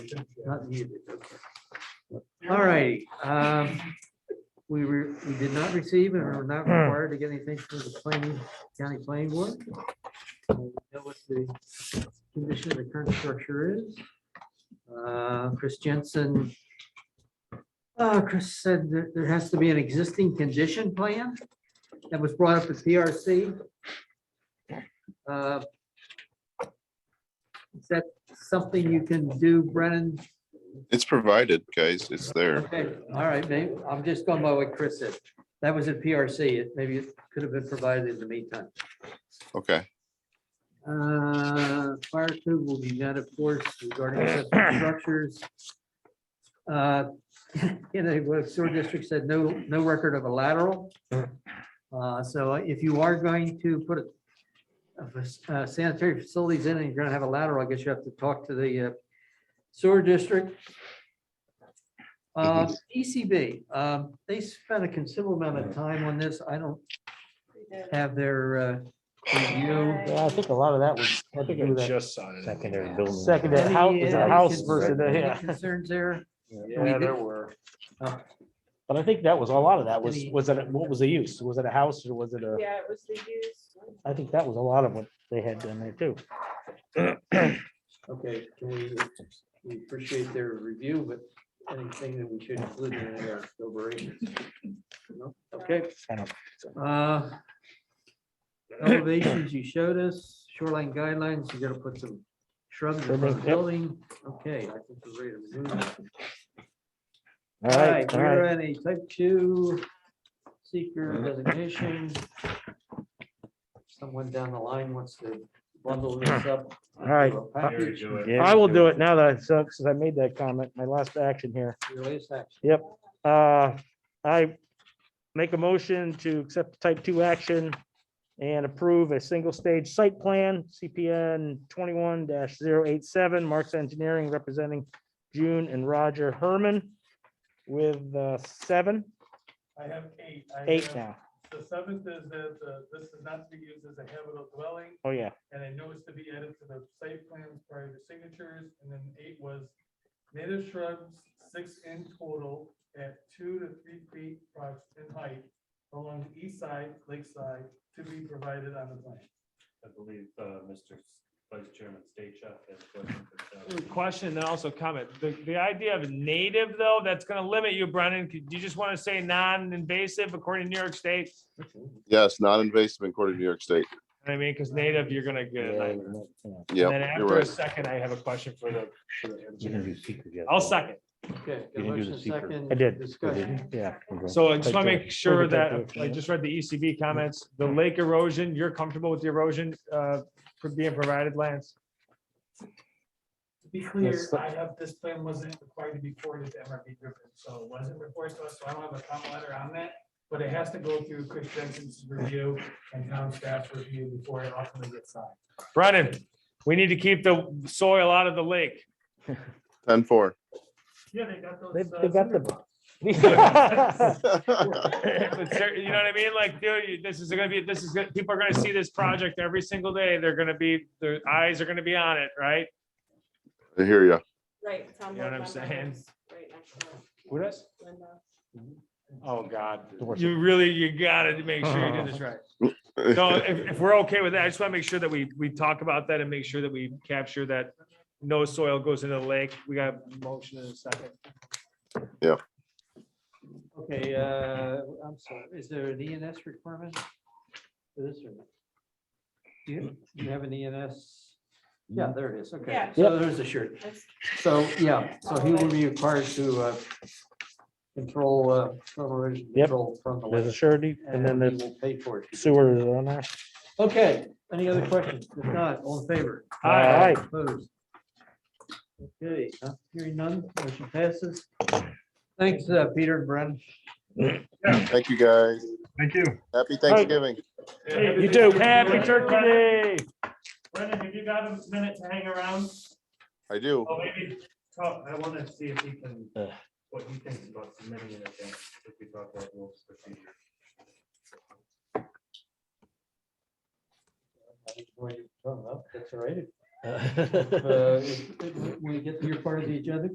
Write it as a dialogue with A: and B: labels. A: Not needed. All righty. um, We were, we did not receive and are not required to get anything from the planning, county planning board. We Know what the condition of the current structure is. Uh, Chris Jensen. Uh, Chris said that there has to be an existing condition plan that was brought up at PRC. Uh, Is that something you can do, Brennan,
B: It's provided, guys. It's there.
A: Okay, all right, maybe, I'm just going by what Chris said. That was at PRC, it maybe it could have been provided in the meantime.
B: Okay.
A: Uh, Fire code will be met, of course, regarding accessory structures. Uh, In a what sewer district said, no, no record of a lateral. Uh, So if you are going to put a- a fac- uh, sanitary facilities in and you're gonna have a lateral, I guess you have to talk to the uh, sewer district. Uh, ECB, um, they spent a considerable amount of time on this. I don't have their uh, review.
C: Yeah, I think a lot of that was. had to do with that
D: just signed it.
E: Secondary building.
C: Secondary
A: Any,
C: house, is
A: uh,
C: a house
A: cons-
C: versus, a-
A: any
C: yeah,
A: Concerns there?
D: Yeah, there were.
C: but I think that was, a lot of that was,
A: Any-
C: was it, what was the use? Was it a house or was it a,
F: Yeah, it was the use.
C: I think that was a lot of what they had done there too.
A: Okay, can we, we appreciate their review, but anything that we should include in our deliberations? No? Okay.
C: I don't
A: Uh, Elevations you showed us, shoreline guidelines, you gotta put some shrubs in the
C: Shrubs, yep.
A: building. Okay, I think we're ready to move. on.
C: All right, all
A: We're
C: right. Mm-hmm.
A: at a type two seeker designation. Someone down the line wants to bundle this up.
C: All right.
A: into a package.
C: I will do it now that, I- so, since I made that comment, my last action here.
A: Your latest action.
C: Uh, I make a motion to accept type two action and approve a single stage site plan, CPN twenty-one 87 Marks Engineering representing June and Roger Herman with uh, seven,
G: I have eight. I
C: eight
G: have-
C: now.
G: The seventh is that uh, this is not to be used as a habitable dwelling,
C: Oh, yeah.
G: and I know it's to be added to the site plans prior to signatures. And then eight was native shrubs, six in total, at two to three feet approx- in height along the east side, lakeside, to be provided on the plan.
H: I believe, uh, Mr. Vice Chairman State has a question.
D: Question and also comment. The, the idea of native though, that's gonna limit you, Brennan. Could- You just want to say non-invasive according to New York State.
B: Yes, non-invasive according to New York State.
D: I mean, because native, you're gonna get. a
C: Yeah,
D: nightmare.
C: you know,
B: Yeah,
D: And then
B: you're
D: after a
B: right.
D: second, I have a question for the. for the
E: You didn't do
D: engineer.
E: secret yet,
D: I'll
E: though.
D: second.
A: Okay. got a
E: You didn't do the
A: motion,
E: secret.
A: second
C: I did.
A: Discussion.
C: Yeah.
E: Okay.
D: So I just
C: Take
D: want to
C: care.
D: make sure
C: Take care,
D: that,
C: take care.
D: I just read the ECB comments, the lake erosion, you're comfortable with the erosion, uh, for being provided, Lance?
G: To be clear,
C: Yes, but-
G: I have, this plan wasn't required to be forwarded to MRB Griffin, so it wasn't reported to us, so I don't have a comment letter on that. But it has to go through Chris Jensen's review and town staff's review before it ultimately gets signed.
D: Brennan, we need to keep the soil out of the lake.
B: Ten four.
G: Yeah, they got those.
C: They've,
G: uh,
C: they've got
G: cinder
C: the.
D: But ser- You know what I mean? Like, dude, you- this is gonna be, this is, gonna- people are gonna see this project every single day. They're gonna be, their eyes are gonna be on it, right?
B: I hear ya.
F: Right. it's on
D: You know
F: both
D: what I'm
F: my
D: saying?
F: doors, right next to it.
D: What is?
F: Linda.
D: Oh, God.
C: Doors.
D: You really, you gotta make sure you do this right. No, if, if we're okay with that, I just want to make sure that we, we talk about that and make sure that we capture that no soil goes into the lake. We got a motion in a second.
A: Okay, uh, I'm sorry, is there an ENS requirement for this or not? Do you, do you have an ENS?
E: Mm-hmm.
A: Yeah, there it is, okay,
F: Yeah.
A: so there's a shirt.
F: That's-
A: So, yeah, so he will be required to uh, control, uh, from erosion
C: Yep.
A: control from the
C: There's a
A: lake.
C: surety and then
A: he
C: the
A: will Pay for it.
C: sewer is on there.
A: Okay, any other questions? If not, all in favor?
C: All right.
A: Opposed? Okay, not hearing none, motion passes. Thanks, uh, Peter and Brennan.
B: Thank you, guys.
D: Thank you.
B: Happy Thanksgiving.
C: You too.
D: Happy Turkey Day.
G: Brendan, have you got a minute to hang around?
B: I do.
H: Oh, maybe, talk- I want to see if he can,
C: Ugh.
H: what he thinks about submitting it again, if we talk about rules procedure.
A: Well, you turn it up, That's all right. Uh, When we get to your part of the agenda,